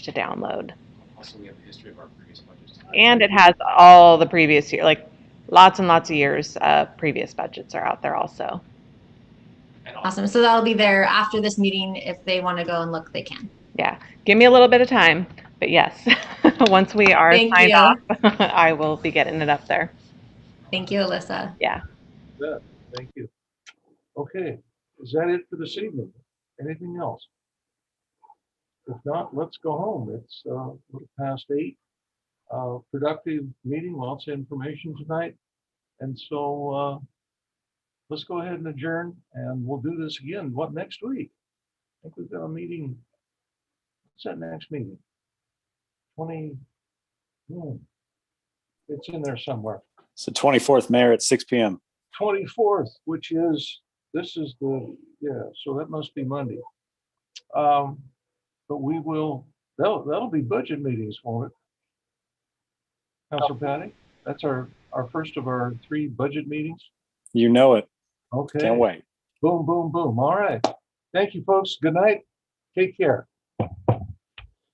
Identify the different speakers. Speaker 1: to download.
Speaker 2: Also, we have a history of our previous budgets.
Speaker 1: And it has all the previous year, like lots and lots of years, uh, previous budgets are out there also.
Speaker 2: And also,
Speaker 3: Awesome. So that'll be there after this meeting. If they want to go and look, they can.
Speaker 1: Give me a little bit of time, but yes, once we are
Speaker 3: Thank
Speaker 1: signed
Speaker 3: you.
Speaker 1: off, I will be getting it up there.
Speaker 3: Thank you, Alyssa.
Speaker 4: Thank you. Okay, is that it for this evening? Anything else? If not, let's go home. It's uh, a little past eight. Uh, Productive meeting, lots of information tonight. And so uh, let's go ahead and adjourn and we'll do this again, what, next week? I think we've got a meeting. What's that next meeting? Twenty. hmm. It's in there somewhere.
Speaker 5: It's the 24th, Mayor, at 6 PM.
Speaker 4: 24th, which is, this is the, yeah, so that must be Monday. Um, But we will, that'll, that'll be budget meetings, won't it? Counselor
Speaker 5: Oh.
Speaker 4: Patty, that's our, our first of our three budget meetings.
Speaker 5: You know it.
Speaker 4: Okay,
Speaker 5: Can't wait.
Speaker 4: boom, boom, boom. All right. Thank you, folks. Good night. Take care.